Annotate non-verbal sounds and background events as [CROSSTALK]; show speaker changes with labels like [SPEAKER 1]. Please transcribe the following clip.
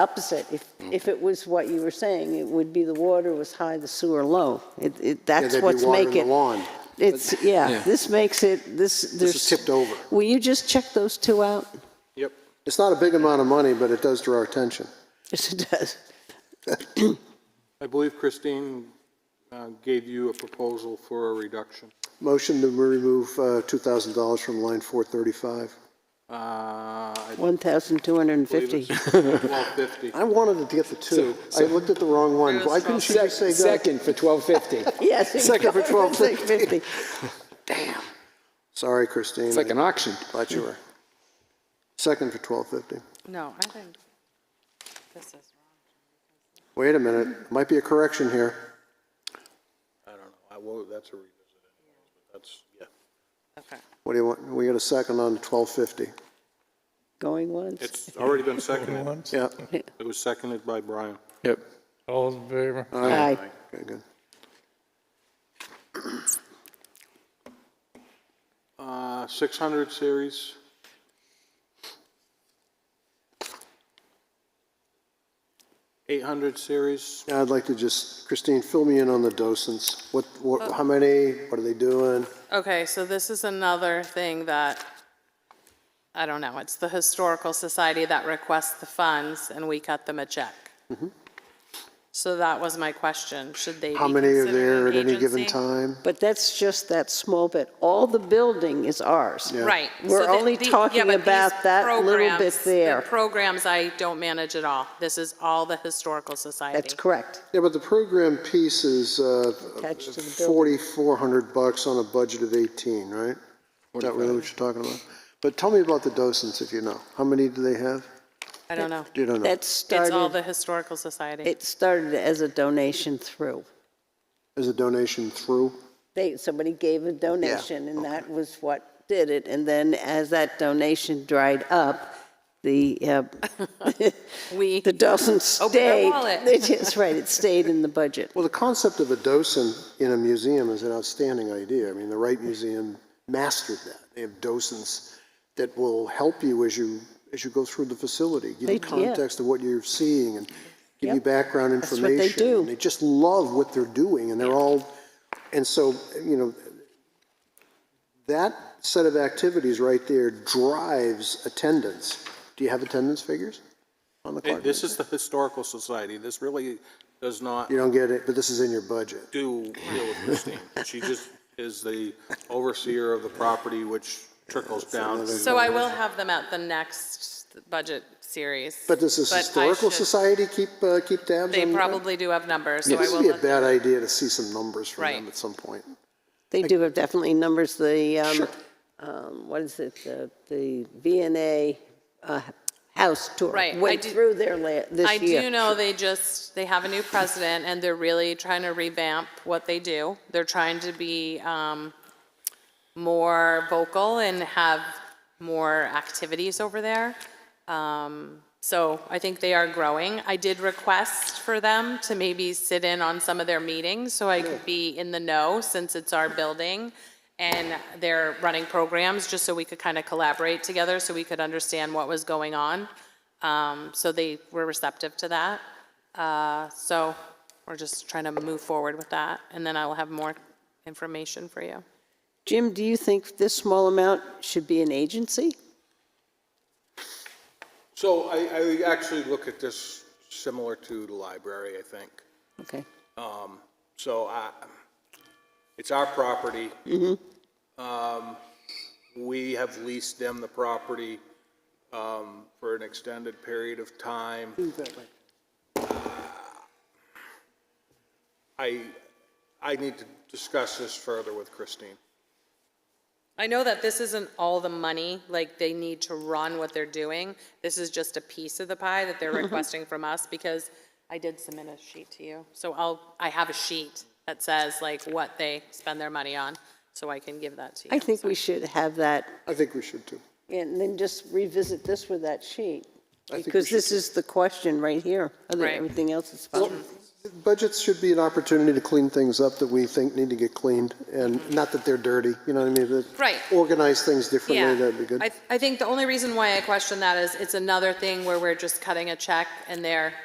[SPEAKER 1] opposite. If,
[SPEAKER 2] Mm.
[SPEAKER 1] if it was what you were saying, it would be the water was high, the sewer low. It, it, that's
[SPEAKER 2] they'd be
[SPEAKER 1] what's
[SPEAKER 2] watering
[SPEAKER 1] making.
[SPEAKER 2] the lawn.
[SPEAKER 1] It's, yeah, this makes it, this, there's.
[SPEAKER 2] is tipped over.
[SPEAKER 1] Will you just check those two out? [LAUGHS]
[SPEAKER 2] Yep. It's not a big amount of money, but it does draw our attention.
[SPEAKER 1] Yes, it does.
[SPEAKER 3] I believe Christine uh, gave you a proposal for a reduction.
[SPEAKER 2] Motion to remove uh, $2,000 from line 435.
[SPEAKER 3] Uh, I believe
[SPEAKER 1] 1,250.
[SPEAKER 3] it's [LAUGHS] 1250.
[SPEAKER 2] I wanted to get the two. I looked at the wrong one. Why couldn't she just say go?
[SPEAKER 4] Second for 1250.
[SPEAKER 1] Yes. it's
[SPEAKER 2] Second for
[SPEAKER 1] going [LAUGHS]
[SPEAKER 2] 1,250.
[SPEAKER 1] 650.
[SPEAKER 2] Sorry, Christine.
[SPEAKER 4] It's like an auction.
[SPEAKER 2] Thought you were. Second for 1250.
[SPEAKER 5] No, I think this is wrong.
[SPEAKER 2] Wait a minute, might be a correction here.
[SPEAKER 3] I don't know. I, well, that's a revisit anyways, but that's, yeah.
[SPEAKER 5] Okay.
[SPEAKER 2] What do you want? We got a second on 1250.
[SPEAKER 1] Going once.
[SPEAKER 3] It's already been seconded.
[SPEAKER 6] Once.
[SPEAKER 2] Yeah,
[SPEAKER 3] It was seconded by Brian.
[SPEAKER 4] Yep.
[SPEAKER 6] All in favor?
[SPEAKER 1] Aye.
[SPEAKER 2] okay, good.
[SPEAKER 3] Uh, 600 series, eight hundred series,
[SPEAKER 2] Now I'd like to just, Christine, fill me in on the docents. What,
[SPEAKER 5] Uh,
[SPEAKER 2] what, how many, what are they doing?
[SPEAKER 5] Okay, so this is another thing that, I don't know, it's the Historical Society that requests the funds, and we cut them a check. So that was my question, should they be
[SPEAKER 2] Mm-hmm. How many are
[SPEAKER 5] considered
[SPEAKER 2] there at
[SPEAKER 5] an
[SPEAKER 2] any given
[SPEAKER 5] agency?
[SPEAKER 2] time?
[SPEAKER 1] But that's just that small bit. All the building is ours.
[SPEAKER 5] Right.
[SPEAKER 1] We're
[SPEAKER 5] so the-
[SPEAKER 1] only
[SPEAKER 5] the- yeah,
[SPEAKER 1] talking
[SPEAKER 5] but these
[SPEAKER 1] about that little bit
[SPEAKER 5] programs- the
[SPEAKER 1] there.
[SPEAKER 5] Programs, I don't manage at all. This is all the Historical Society.
[SPEAKER 1] That's correct.
[SPEAKER 2] Yeah, but the program piece is, uh,
[SPEAKER 1] Attached to the building.
[SPEAKER 2] 4,400 bucks on a budget of 18, right? Is that really what you're talking about? But tell me about the docents if you know. How many do they have?
[SPEAKER 5] I don't know.
[SPEAKER 2] You don't know.
[SPEAKER 1] That
[SPEAKER 5] It's all
[SPEAKER 1] started,
[SPEAKER 5] the Historical Society.
[SPEAKER 1] it started as a donation through.
[SPEAKER 2] Is a donation through?
[SPEAKER 1] They, somebody gave a donation, and that was what did it. And then as that donation dried up, the, uh,
[SPEAKER 5] [LAUGHS] We,
[SPEAKER 1] the
[SPEAKER 5] [LAUGHS]
[SPEAKER 1] doesn't
[SPEAKER 5] Open their
[SPEAKER 1] stay. [LAUGHS]
[SPEAKER 5] wallet.
[SPEAKER 1] That's right, it stayed in the budget.
[SPEAKER 2] Well, the concept of a docent in a museum is an outstanding idea. I mean, the Wright Museum mastered that. They have docents that will help you as you, as you go through the facility, give
[SPEAKER 1] They
[SPEAKER 2] you
[SPEAKER 1] do, yeah.
[SPEAKER 2] context of what you're seeing and give you
[SPEAKER 1] Yep.
[SPEAKER 2] background
[SPEAKER 1] That's what
[SPEAKER 2] information.
[SPEAKER 1] they do.
[SPEAKER 2] And They just love what they're doing and they're all, and so, you know, that set of activities right there drives attendance. Do you have attendance figures on the
[SPEAKER 3] Hey,
[SPEAKER 2] card?
[SPEAKER 3] this is the Historical Society, this really does not
[SPEAKER 2] You don't get it, but this is in your budget.
[SPEAKER 3] do deal with Christine. She just is the overseer of the property, which trickles down to
[SPEAKER 5] so I will have them at the next budget series.
[SPEAKER 2] But does this
[SPEAKER 5] I
[SPEAKER 2] historical
[SPEAKER 5] should-
[SPEAKER 2] society keep, uh, keep tabs on that?
[SPEAKER 5] They probably do have numbers, so I
[SPEAKER 2] This
[SPEAKER 5] will
[SPEAKER 2] would be a
[SPEAKER 5] let
[SPEAKER 2] bad idea to see some numbers from them
[SPEAKER 5] Right.
[SPEAKER 2] at some point.
[SPEAKER 1] They do have definitely numbers, the, um, um, what is it, the, the VNA, uh, house tour.
[SPEAKER 5] Right, I
[SPEAKER 1] Went
[SPEAKER 5] do-
[SPEAKER 1] through there la,
[SPEAKER 5] I
[SPEAKER 1] this year.
[SPEAKER 5] do know they just, they have a new president, and they're really trying to revamp what they do. They're trying to be um, more vocal and have more activities over there. Um, So I think they are growing. I did request for them to maybe sit in on some of their meetings, so I could be in the know, since it's our building, and they're running programs, just so we could kind of collaborate together, so we could understand what was going on. Um, So they were receptive to that. Uh, So we're just trying to move forward with that, and then I will have more information for you.
[SPEAKER 1] Jim, do you think this small amount should be an agency?
[SPEAKER 3] So I, I actually look at this similar to the library, I think.
[SPEAKER 1] Okay.
[SPEAKER 3] So I, it's our property. Um, We have leased them the property um, for an extended period of time. Uh, I, I need to discuss this further with Christine.
[SPEAKER 5] I know that this isn't all the money, like they need to run what they're doing. This is just a piece of the pie that
[SPEAKER 1] Mm-hmm.
[SPEAKER 5] they're requesting from us because I did submit a sheet to you. So I'll, I have a sheet that says like what they spend their money on, so I can give that to you.
[SPEAKER 1] I think we should have that,
[SPEAKER 2] I think we should too.
[SPEAKER 1] and then just revisit this with that sheet,
[SPEAKER 2] think we
[SPEAKER 1] because
[SPEAKER 2] should.
[SPEAKER 1] this is the question right here, other than
[SPEAKER 5] Right.
[SPEAKER 1] everything else is fine.
[SPEAKER 2] budgets should be an opportunity to clean things up that we think need to get cleaned, and not that they're dirty, you know what I mean? That-
[SPEAKER 5] Right.
[SPEAKER 2] Organize things differently, that'd be good.
[SPEAKER 5] I, I think the only reason why I question that is it's another thing where we're just cutting a check and they're